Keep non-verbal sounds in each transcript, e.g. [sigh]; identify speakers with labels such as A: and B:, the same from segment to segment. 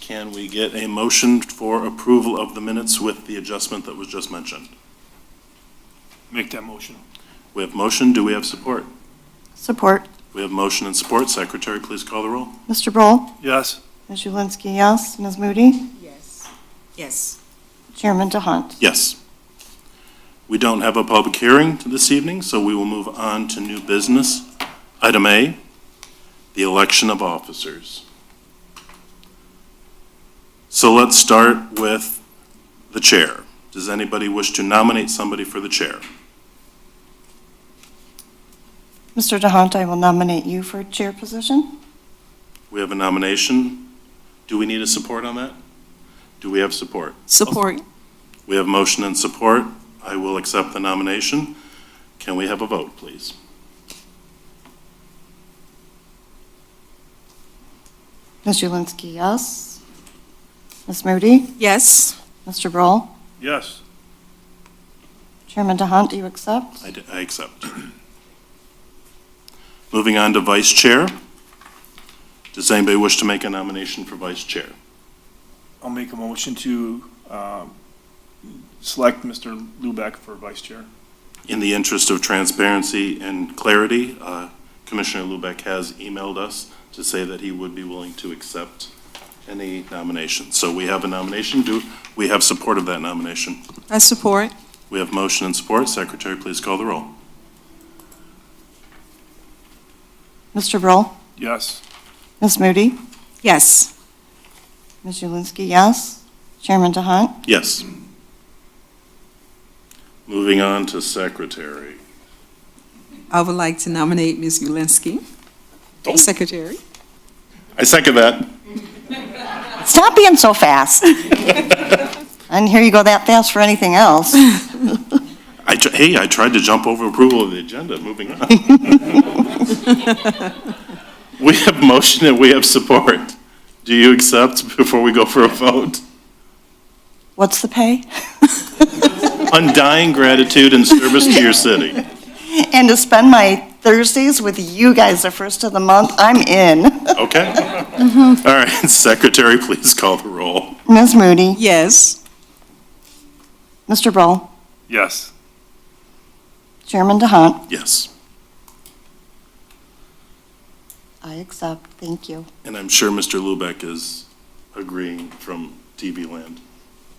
A: Can we get a motion for approval of the minutes with the adjustment that was just mentioned?
B: Make that motion.
A: We have motion, do we have support?
C: Support.
A: We have motion and support. Secretary, please call the roll.
C: Mr. Broll?
B: Yes.
C: Ms. Julinski, yes. Ms. Moody?
D: Yes. Yes.
C: Chairman DeHunt?
A: Yes. We don't have a public hearing this evening, so we will move on to new business. Item A, the election of officers. So let's start with the chair. Does anybody wish to nominate somebody for the chair?
C: Mr. DeHunt, I will nominate you for chair position.
A: We have a nomination. Do we need a support on that? Do we have support?
D: Support.
A: We have motion and support. I will accept the nomination. Can we have a vote, please?
C: Ms. Julinski, yes. Ms. Moody?
D: Yes.
C: Mr. Broll?
B: Yes.
C: Chairman DeHunt, do you accept?
A: I d- I accept. Moving on to vice chair. Does anybody wish to make a nomination for vice chair?
B: I'll make a motion to um, select Mr. Lubeck for vice chair.
A: In the interest of transparency and clarity, uh, Commissioner Lubeck has emailed us to say that he would be willing to accept any nomination. So we have a nomination. Do, we have support of that nomination.
D: I support.
A: We have motion and support. Secretary, please call the roll.
C: Mr. Broll?
B: Yes.
C: Ms. Moody?
D: Yes.
C: Ms. Julinski, yes. Chairman DeHunt?
A: Yes. Moving on to secretary.
D: I would like to nominate Ms. Ulinski, secretary.
A: I second that.
C: Stop being so fast. I didn't hear you go that fast for anything else. [laughs]
A: I, tr- hey, I tried to jump over approval of the agenda, moving on. [laughs] We have motion and we have support. Do you accept before we go for a vote?
C: What's the pay? [laughs]
A: Undying gratitude and service to your city.
C: And to spend my Thursdays with you guys the first of the month, I'm in. Mm-hmm.
A: Okay? All right, [laughs] secretary, please call the roll.
C: Ms. Moody?
D: Yes.
C: Mr. Broll?
B: Yes.
C: Chairman DeHunt?
A: Yes,
C: I accept, thank you.
A: and I'm sure Mr. Lubeck is agreeing from TV land,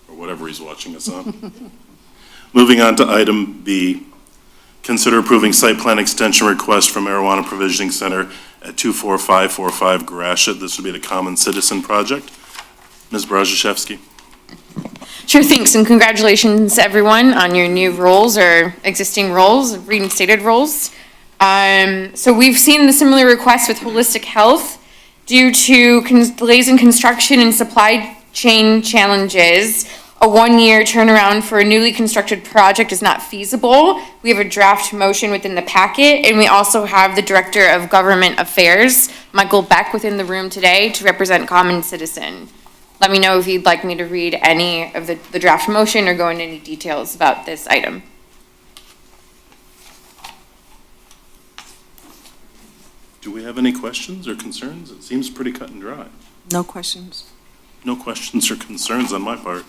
A: or whatever he's watching us on. [laughs] Moving on to item B, Consider approving site plan extension request from Marijuana Provisioning Center at 24545 Grashit. This would be the Common Citizen Project. Ms. Brazaszewski,
E: Sure, thanks, and congratulations, everyone, on your new roles or existing roles, reinstated roles. Um, so we've seen the similar request with holistic health due to cons- delays in construction and supply chain challenges. A one-year turnaround for a newly constructed project is not feasible. We have a draft motion within the packet, and we also have the Director of Government Affairs, Michael Beck, within the room today to represent Common Citizen. Let me know if you'd like me to read any of the, the draft motion or go into any details about this item.
A: do we have any questions or concerns? It seems pretty cut and dry.
D: No questions.
A: No questions or concerns on my part.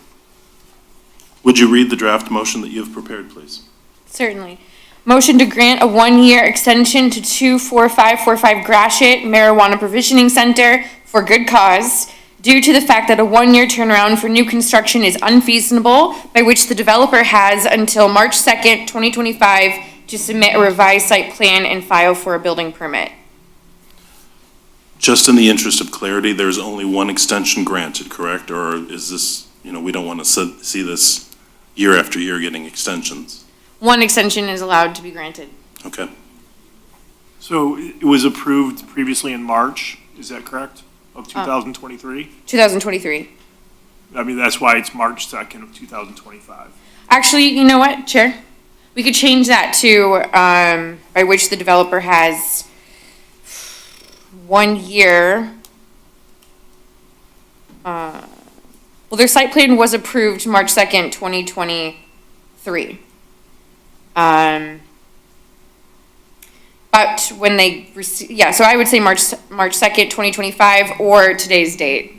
A: Would you read the draft motion that you have prepared, please?
E: Certainly. Motion to grant a one-year extension to two four five four five Grashit Marijuana Provisioning Center for good cause due to the fact that a one-year turnaround for new construction is unfeasible, by which the developer has until March second, twenty twenty-five to submit a revised site plan and file for a building permit.
A: Just in the interest of clarity, there's only one extension granted, correct? Or is this, you know, we don't want to see this year after year getting extensions?
E: One extension is allowed to be granted.
A: Okay.
B: So it was approved previously in March, is that correct, of 2023?
E: 2023.
B: I mean, that's why it's March 2nd of 2025.
E: Actually, you know what, Chair? We could change that to, um, by which the developer has one year. Uh, Well, their site plan was approved March second, twenty twenty-three. Um, but when they receive, yeah, so I would say March, March second, twenty twenty-five, or today's date.